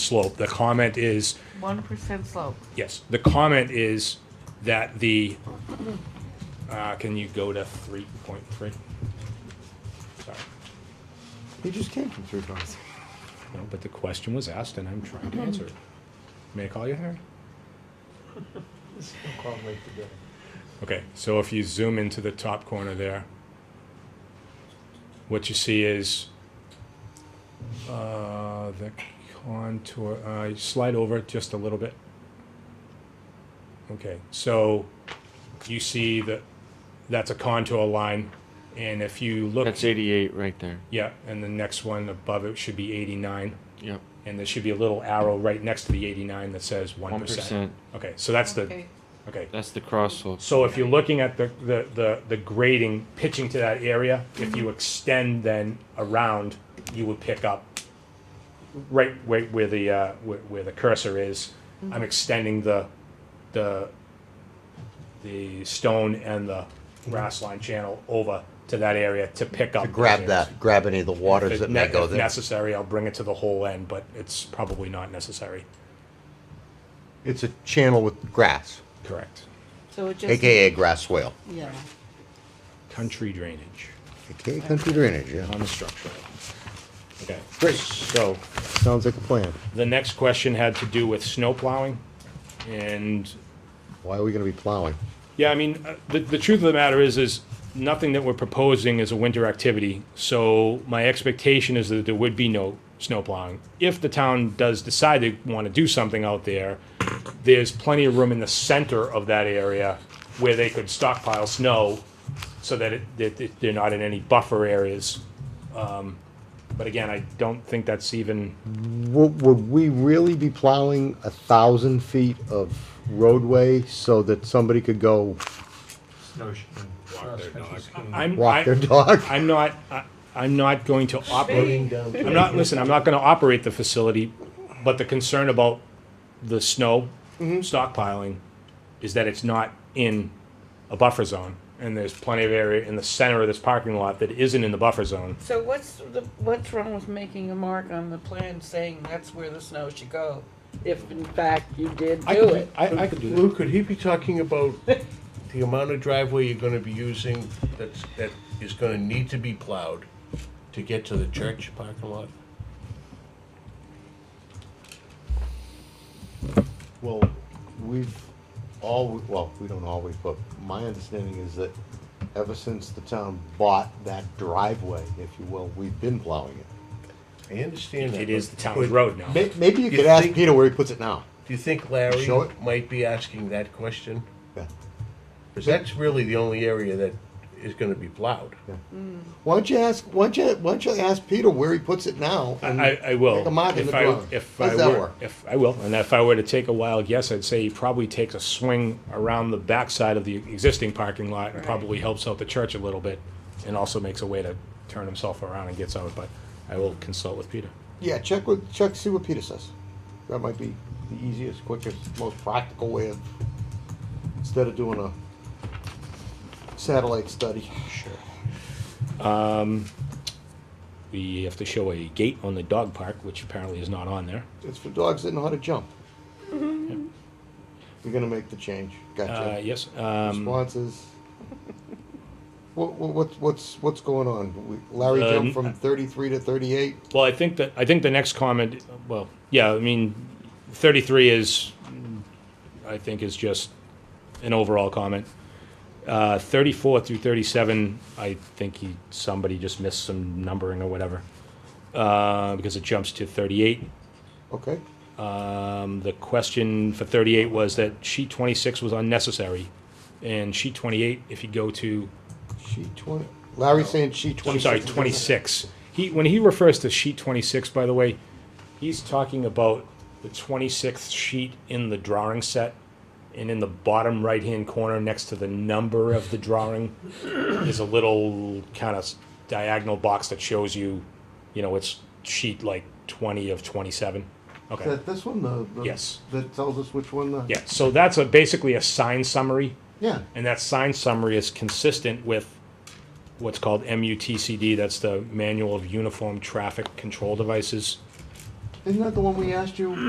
slope. The comment is, One percent slope. yes, the comment is that the, uh, can you go to three point three? Sorry, You just came from three points. no, but the question was asked and I'm trying to answer it. May I call you Harry? Okay, so if you zoom into the top corner there, what you see is uh, the contour. Uh, slide over just a little bit. Okay, so you see that that's a contour line, and if you look, That's 88 right there. yeah, and the next one above it should be 89, Yep. and there should be a little arrow right next to the 89 that says 1%. 1%. Okay, so that's Okay. the okay. That's the cross slope. So if you're looking at the, the, the, the grading pitching to that area, if you extend then around, you would pick up right where, where the, uh, where, where the cursor is. I'm extending the, the, the stone and the grass line channel over to that area to pick up. Mm-hmm. To grab those areas. that, grab any of the waters If that ne- may go if there. necessary, I'll bring it to the whole end, but it's probably not necessary. It's a channel with grass, Correct. So it just. AKA grass swale, Yeah. Country drainage AKA country drainage, yeah. on the structure. Okay, Great. so Sounds like a plan. The next question had to do with snow plowing. And, Why are we gonna be plowing? yeah, I mean, uh, the, the truth of the matter is, is nothing that we're proposing is a winter activity. So my expectation is that there would be no snow plowing. If the town does decide they want to do something out there, there's plenty of room in the center of that area where they could stockpile snow so that it, that it- they're not in any buffer areas. Um, But again, I don't think that's even, Would, would we really be plowing a thousand feet of roadway so that somebody could go I'm. I- walk their dog? I'm not, I- I'm not going to operate, I'm not, listen, I'm not gonna operate the facility, but the concern about the snow Mm-hmm. stockpiling is that it's not in a buffer zone, and there's plenty of area in the center of this parking lot that isn't in the buffer zone. So what's the, what's wrong with making a mark on the plan saying that's where the snow should go? If in fact you did I do could, it. I, I could do that. Lou, could he be talking about the amount of driveway you're gonna be using that's, that is gonna need to be plowed to get to the church parking lot? Well, we've all, well, we don't always, but my understanding is that ever since the town bought that driveway, if you will, we've been plowing it. I understand that. It is but the town's road now. May, maybe you You could ask think- Peter where he puts it now. Do you think Larry Show it. might be asking that question? Yeah. Because that's really the only area that is gonna be plowed. Why don't you ask, why don't you, why don't you ask Peter where he puts it now? and I, I will. Make a mark in If the I- drawing. If How's I that were, work? if, I will, and if I were to take a wild guess, I'd say he probably takes a swing around the backside of the existing parking lot and probably helps out the church a little bit and also makes a way to turn himself around and gets out, but I will consult with Peter. Yeah, check with, check, see what Peter says. That might be the easiest, quickest, most practical way of, instead of doing a satellite study. Sure. We have to show a gate on the dog park, which apparently is not on there. It's for dogs that know how to jump. You're gonna make the change. Uh, Gotcha. yes, um, Responses. What, what, what's- what's, what's going on? We- Larry Uh, jumped from thirty-three to thirty-eight? well, I think that, I think the next comment, well, yeah, I mean, thirty-three is, I think is just an overall comment. Uh, thirty-four through thirty-seven, I think he, somebody just missed some numbering or whatever. Uh, because it jumps to thirty-eight. Okay, Um, the question for thirty-eight was that sheet twenty-six was unnecessary. And sheet twenty-eight, if you go to she twenty, Larry's saying she I'm twenty-six. sorry, 26. He, when he refers to sheet 26, by the way, he's talking about the 26th sheet in the drawing set. And in the bottom right-hand corner, next to the number of the drawing, is a little kind of diagonal box that shows you, you know, it's sheet like 20 of 27. Okay. That, this one, the, the- Yes. That tells us which one the. Yeah, so that's a, basically a sign summary. Yeah, And that sign summary is consistent with what's called MUTCD, that's the Manual of Uniform Traffic Control Devices. Isn't that the one we asked you